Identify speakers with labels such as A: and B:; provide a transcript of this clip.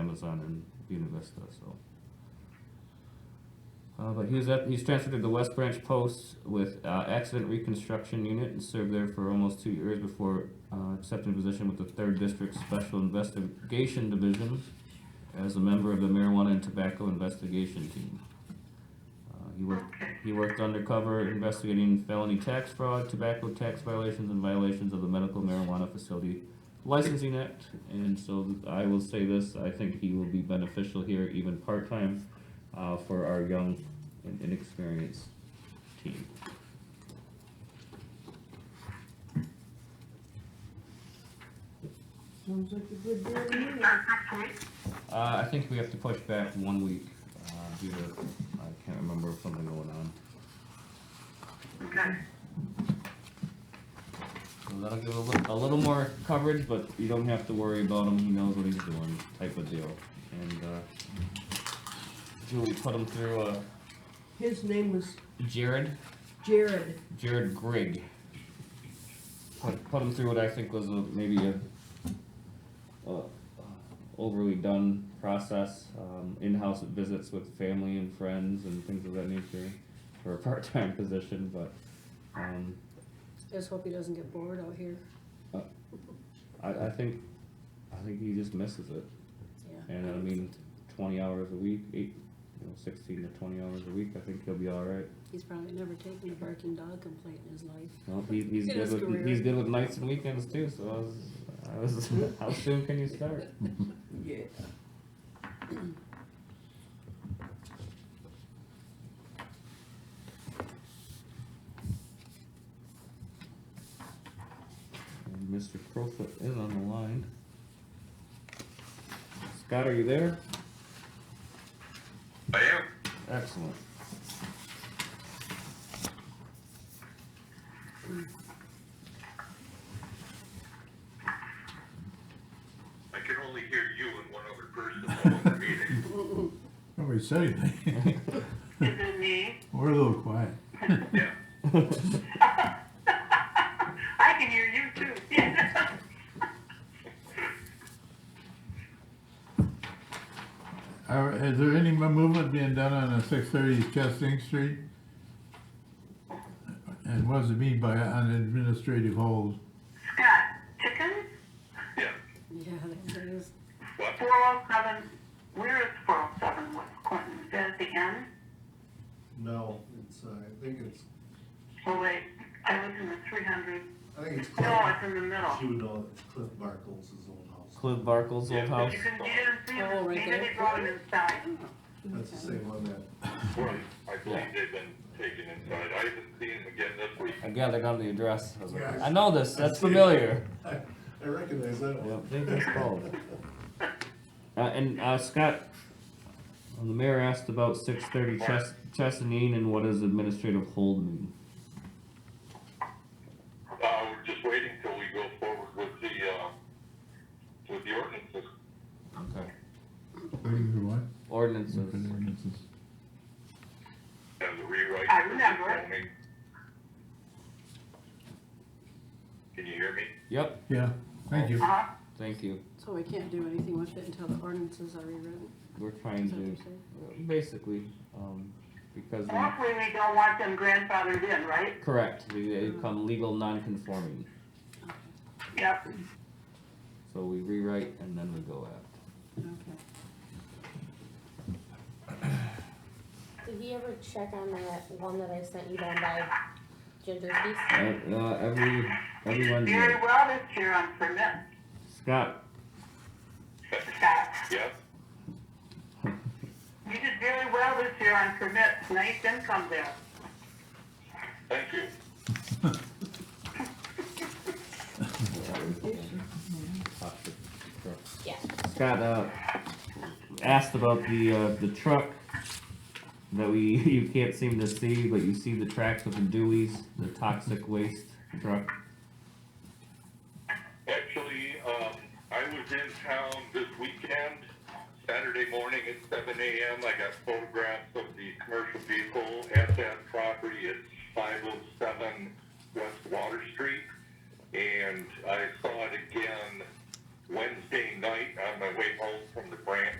A: Amazon and Buena Vista, so. Uh, but he was at, he's transferred to the West Branch Post with uh, Accident Reconstruction Unit and served there for almost two years before uh, accepting position with the Third District Special Investigation Division as a member of the Marijuana and Tobacco Investigation Team. Uh, he worked
B: Okay,
A: he worked undercover investigating felony tax fraud, tobacco tax violations, and violations of the Medical Marijuana Facility Licensing Act. And so I will say this, I think he will be beneficial here even part-time uh, for our young and inexperienced team.
C: Sounds like a good deal to me.
B: okay.
A: Uh, I think we have to push back one week uh, due to, I can't remember, something going on.
B: Okay.
A: So that'll give a little, a little more coverage, but you don't have to worry about him, he knows what he's doing, type of deal. And, uh, Julie put him through, uh,
C: His name was
A: Jared,
C: Jared.
A: Jared Grigg. Put, put him through what I think was a, maybe a, a overly done process, um, in-house visits with family and friends and things of that nature for a part-time position, but, um,
D: Just hope he doesn't get bored out here.
A: I, I think, I think he just misses it.
D: Yeah.
A: And I mean, twenty hours a week, eight, you know, sixteen to twenty hours a week, I think he'll be all right.
D: He's probably never taken a barking dog complaint in his life.
A: No, he, he's
D: In
A: good
D: his
A: with,
D: career.
A: he's good with nights and weekends too, so I was, I was, how soon can you start?
C: Yeah.
A: And Mr. Crowfoot is on the line. Scott, are you there?
E: I am.
A: Excellent.
E: I can only hear you and one other person in the meeting.
F: Nobody said anything.
B: Is it me?
F: We're a little quiet.
E: Yeah.
B: I can hear you too.
F: Are, is there any mo- movement being done on the six thirty Chestnut Street? And what does it mean by an administrative hold?
B: Scott, chickens,
E: Yeah.
D: Yeah, there it is.
E: What?
B: four oh seven, where is four oh seven West Clinton? Is that at the end?
G: No, it's, uh, I think it's,
B: Oh wait, I live in the three hundred.
G: I think it's Cliff.
B: No, it's in the middle.
G: She would know it's Cliff Barkles' old house.
A: Cliff Barkle's old
E: Yeah.
A: house.
B: You can get in, see
D: Oh, right
B: it, see
D: there.
B: it going inside.
G: That's the same one that
E: Right. I believe they've been taken inside. I haven't seen them again this week.
A: I gathered on the address. I was like,
G: Yeah.
A: I know this, that's
G: I see it.
A: familiar.
G: I, I recognize that
A: Yep,
G: one.
A: they just followed it. Uh, and, uh, Scott, uh, the mayor asked about six thirty Chess, Chesneen and what does administrative hold mean?
E: Uh, we're just waiting till we go forward with the, uh, with the ordinances.
A: Okay.
F: Waiting for what?
A: Ordinances.
F: For the ordinances.
E: and the rewrite.
B: I
E: for the
B: remember.
E: zoning. Can you hear me?
A: Yep,
F: Yeah, thank you.
B: Uh-huh.
A: thank you.
D: So we can't do anything with it until the ordinances are rewritten.
A: We're trying
D: Is that what you're
A: to,
D: saying?
A: basically, um, because we,
B: Hopefully we don't want them grandfathered in, right?
A: correct, we they become legal non-conforming.
B: Yep.
A: So we rewrite and then we go out.
D: Okay.
H: Did he ever check on that one that I sent you down by Ginger's piece?
A: Uh, uh, every, every Wednesday.
B: Very well this year on permit,
A: Scott,
B: Scott.
E: Yes?
B: You did very well this year on permits, nice income there.
E: Thank you.
H: Yeah.
A: Scott uh, asked about the uh, the truck that we you can't seem to see, but you see the tracks of the Dewey's, the toxic waste truck.
E: Actually, um, I was in town this weekend, Saturday morning at seven AM. I got photographs of the commercial vehicle at that property at five oh seven West Water Street. And I saw it again Wednesday night on my way home from the branch